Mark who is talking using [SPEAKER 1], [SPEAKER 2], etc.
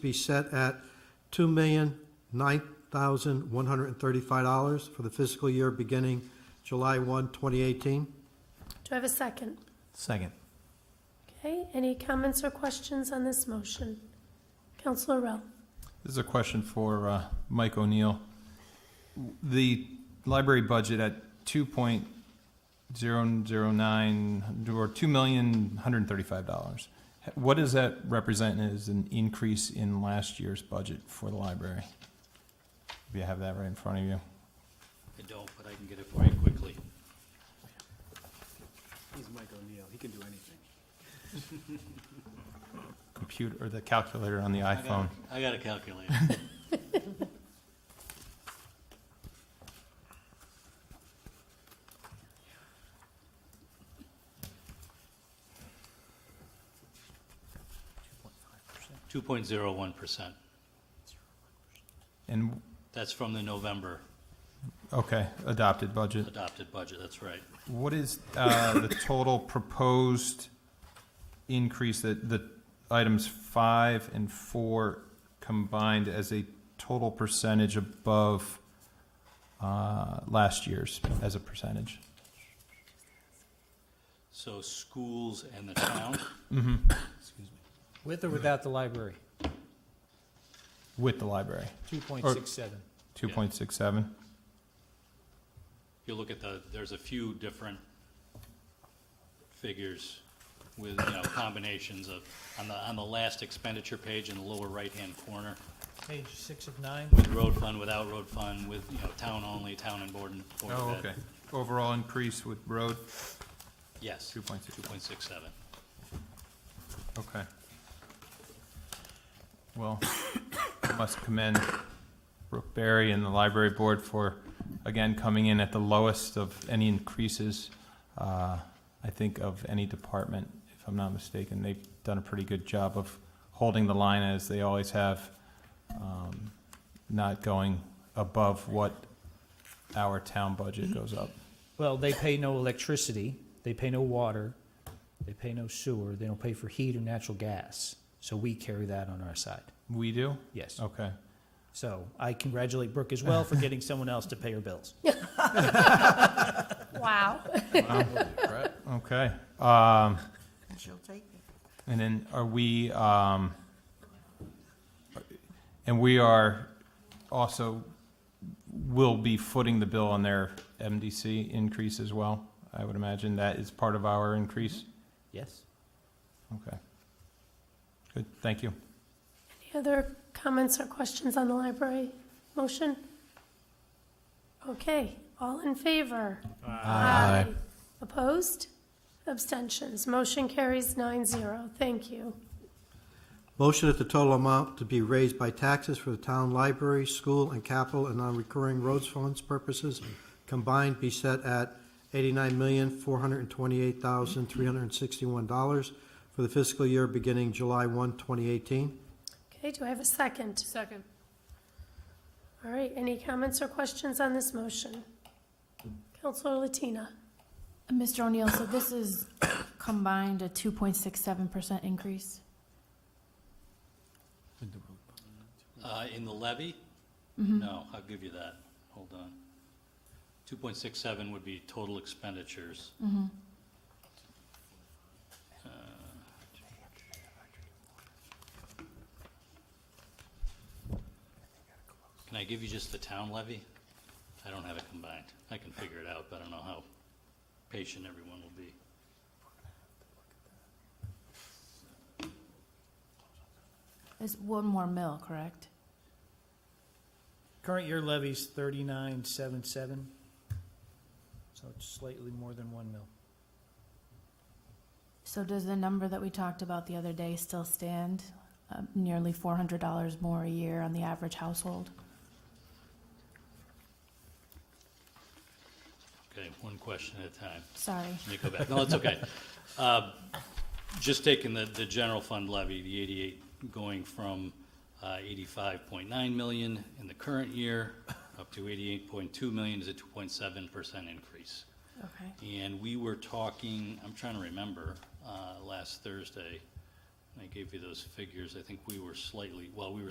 [SPEAKER 1] be set at two million nine thousand one hundred and thirty-five dollars for the fiscal year beginning July 1, 2018.
[SPEAKER 2] Do I have a second?
[SPEAKER 3] Second.
[SPEAKER 2] Okay, any comments or questions on this motion? Counselor Rowe?
[SPEAKER 3] This is a question for uh, Mike O'Neill. The library budget at two point zero zero nine, or two million, one hundred and thirty-five dollars. What does that represent as an increase in last year's budget for the library? If you have that right in front of you.
[SPEAKER 4] I don't, but I can get it for you quickly.
[SPEAKER 5] He's Mike O'Neill, he can do anything.
[SPEAKER 3] Computer, or the calculator on the
[SPEAKER 4] I got
[SPEAKER 3] iPhone.
[SPEAKER 4] a- I got a calculator. Two point zero one percent.
[SPEAKER 3] And,
[SPEAKER 4] That's from the November
[SPEAKER 3] okay, adopted budget.
[SPEAKER 4] adopted budget, that's right.
[SPEAKER 3] What is uh, the total proposed increase that the items five and four combined as a total percentage above uh, last year's as a percentage?
[SPEAKER 4] So schools and the town,
[SPEAKER 6] With or without the library,
[SPEAKER 3] With the library,
[SPEAKER 6] two point six seven.
[SPEAKER 3] 2.67?
[SPEAKER 4] you look at the, there's a few different figures with, you know, combinations of, on the, on the last expenditure page in the lower right-hand corner,
[SPEAKER 6] Page six of nine,
[SPEAKER 4] with road fund, without road fund, with, you know, town only, town and board and board of
[SPEAKER 3] Oh,
[SPEAKER 4] ed.
[SPEAKER 3] okay. Overall increase with road,
[SPEAKER 4] Yes, two
[SPEAKER 3] 2.67.
[SPEAKER 4] point six seven.
[SPEAKER 3] Okay. Well, I must commend Brooke Berry and the library board for, again, coming in at the lowest of any increases, uh, I think of any department, if I'm not mistaken. They've done a pretty good job of holding the line as they always have, um, not going above what our town budget goes up.
[SPEAKER 6] well, they pay no electricity, they pay no water, they pay no sewer, they don't pay for heat or natural gas. So we carry that on our side,
[SPEAKER 3] We do?
[SPEAKER 6] yes.
[SPEAKER 3] Okay.
[SPEAKER 6] So I congratulate Brooke as well for getting someone else to pay her bills.
[SPEAKER 2] Wow.
[SPEAKER 3] Okay. Um,
[SPEAKER 7] She'll take it.
[SPEAKER 3] And then are we, um, and we are also, will be footing the bill on their MDC increase as well? I would imagine that is part of our increase?
[SPEAKER 6] Yes?
[SPEAKER 3] Okay. Good, thank you.
[SPEAKER 2] Any other comments or questions on the library motion? Okay, all in favor?
[SPEAKER 3] Aye.
[SPEAKER 2] Opposed? Abstentions? Motion carries nine zero. Thank you.
[SPEAKER 1] Motion that the total amount to be raised by taxes for the town library, school, and capital and non-recurring roads funds purposes combined be set at eighty-nine million, four hundred and twenty-eight thousand, three hundred and sixty-one dollars for the fiscal year beginning July 1, 2018.
[SPEAKER 2] Okay, do I have a second? Second. All right, any comments or questions on this motion? Counselor Latina?
[SPEAKER 8] Mr. O'Neill, so this is combined a 2.67% increase?
[SPEAKER 4] Uh, in the levy? No, I'll give you that, hold on. Two point six seven would be total expenditures. Uh, Can I give you just the town levy? I don't have it combined, I can figure it out, but I don't know how patient everyone will be.
[SPEAKER 8] It's one more mill, correct?
[SPEAKER 6] Current year levy's thirty-nine seven seven, so it's slightly more than one mil.
[SPEAKER 8] So does the number that we talked about the other day still stand? Uh, Nearly $400 more a year on the average household?
[SPEAKER 4] Okay, one question at a time.
[SPEAKER 8] Sorry.
[SPEAKER 4] Let me go back. No, it's okay. Uh, Just taking the, the general fund levy, the 88 going from uh, 85.9 million in the current year up to 88.2 million is a 2.7% increase.
[SPEAKER 8] Okay.
[SPEAKER 4] And we were talking, I'm trying to remember, uh, last Thursday, I gave you those figures. I think we were slightly, well, we were